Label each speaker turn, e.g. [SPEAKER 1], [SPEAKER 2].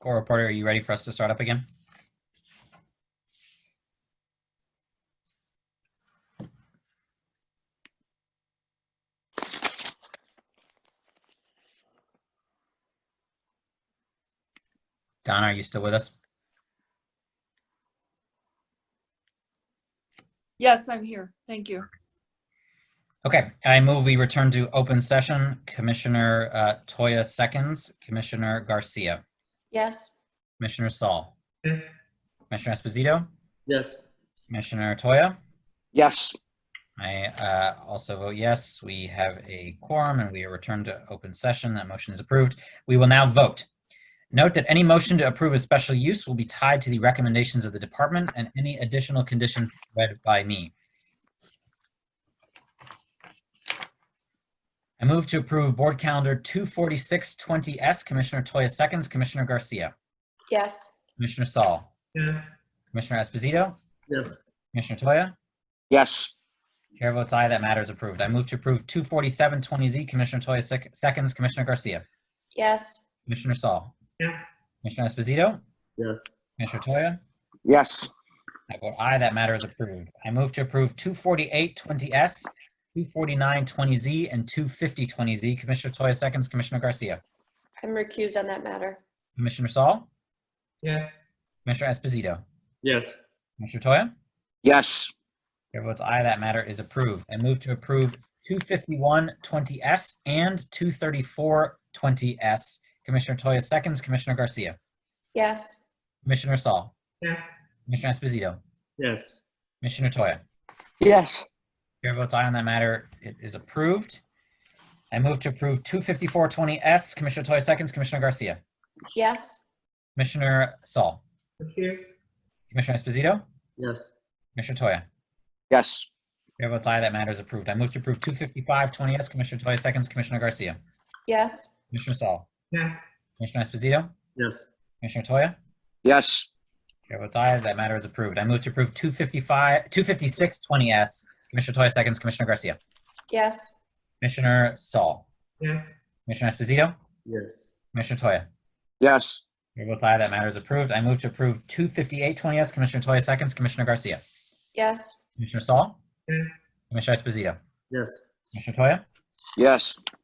[SPEAKER 1] Core reporter, are you ready for us to start up again? Donna, are you still with us?
[SPEAKER 2] Yes, I'm here. Thank you.
[SPEAKER 1] Okay, I move we return to open session. Commissioner uh, Toya seconds, Commissioner Garcia,
[SPEAKER 3] Yes.
[SPEAKER 1] Commissioner Saul, Commissioner Esposito,
[SPEAKER 4] Yes.
[SPEAKER 1] Commissioner Toya.
[SPEAKER 5] Yes,
[SPEAKER 1] I uh, also vote yes. We have a quorum and we are returned to open session. That motion is approved. We will now vote. Note that any motion to approve a special use will be tied to the recommendations of the department and any additional condition read by me. I move to approve Board Calendar 24620S. Commissioner Toya seconds, Commissioner Garcia,
[SPEAKER 3] Yes.
[SPEAKER 1] Commissioner Saul,
[SPEAKER 4] Yes.
[SPEAKER 1] Commissioner Esposito,
[SPEAKER 4] Yes.
[SPEAKER 1] Commissioner Toya.
[SPEAKER 5] yes,
[SPEAKER 1] Chair votes aye, that matter is approved. I move to approve 24720Z. Commissioner Toya sec- seconds, Commissioner Garcia.
[SPEAKER 3] Yes.
[SPEAKER 1] Commissioner Saul.
[SPEAKER 4] Yes.
[SPEAKER 1] Commissioner Esposito.
[SPEAKER 4] Yes.
[SPEAKER 1] Commissioner Toya.
[SPEAKER 5] yes,
[SPEAKER 1] I vote aye, that matter is approved. I move to approve 24820S, 24920Z, and 25020Z. Commissioner Toya seconds, Commissioner Garcia.
[SPEAKER 3] I'm recused on that matter.
[SPEAKER 1] Commissioner Saul.
[SPEAKER 4] Yes.
[SPEAKER 1] Commissioner Esposito.
[SPEAKER 4] Yes.
[SPEAKER 1] Commissioner Toya.
[SPEAKER 5] yes,
[SPEAKER 1] Chair votes aye, that matter is approved. I move to approve 25120S and 23420S. Commissioner Toya seconds, Commissioner Garcia.
[SPEAKER 3] Yes.
[SPEAKER 1] Commissioner Saul.
[SPEAKER 4] Yes.
[SPEAKER 1] Commissioner Esposito.
[SPEAKER 4] Yes.
[SPEAKER 1] Commissioner Toya.
[SPEAKER 5] yes,
[SPEAKER 1] Chair votes aye on that matter. It is approved. I move to approve 25420S. Commissioner Toya seconds, Commissioner Garcia.
[SPEAKER 3] Yes.
[SPEAKER 1] Commissioner Saul. Commissioner Esposito.
[SPEAKER 4] Yes.
[SPEAKER 1] Commissioner Toya.
[SPEAKER 5] yes,
[SPEAKER 1] Chair votes aye, that matter is approved. I move to approve 25520S. Commissioner Toya seconds, Commissioner Garcia.
[SPEAKER 3] Yes.
[SPEAKER 1] Commissioner Saul.
[SPEAKER 4] Yes.
[SPEAKER 1] Commissioner Esposito.
[SPEAKER 4] Yes.
[SPEAKER 1] Commissioner Toya.
[SPEAKER 5] yes,
[SPEAKER 1] Chair votes aye, that matter is approved. I move to approve 255, 25620S. Commissioner Toya seconds, Commissioner Garcia.
[SPEAKER 3] Yes.
[SPEAKER 1] Commissioner Saul.
[SPEAKER 4] Yes.
[SPEAKER 1] Commissioner Esposito.
[SPEAKER 4] Yes.
[SPEAKER 1] Commissioner Toya.
[SPEAKER 5] yes,
[SPEAKER 1] Chair votes aye, that matter is approved. I move to approve 25820S. Commissioner Toya seconds, Commissioner Garcia.
[SPEAKER 3] Yes.
[SPEAKER 1] Commissioner Saul.
[SPEAKER 4] Yes.
[SPEAKER 1] Commissioner Esposito.
[SPEAKER 4] Yes.
[SPEAKER 1] Commissioner Toya.
[SPEAKER 5] yes,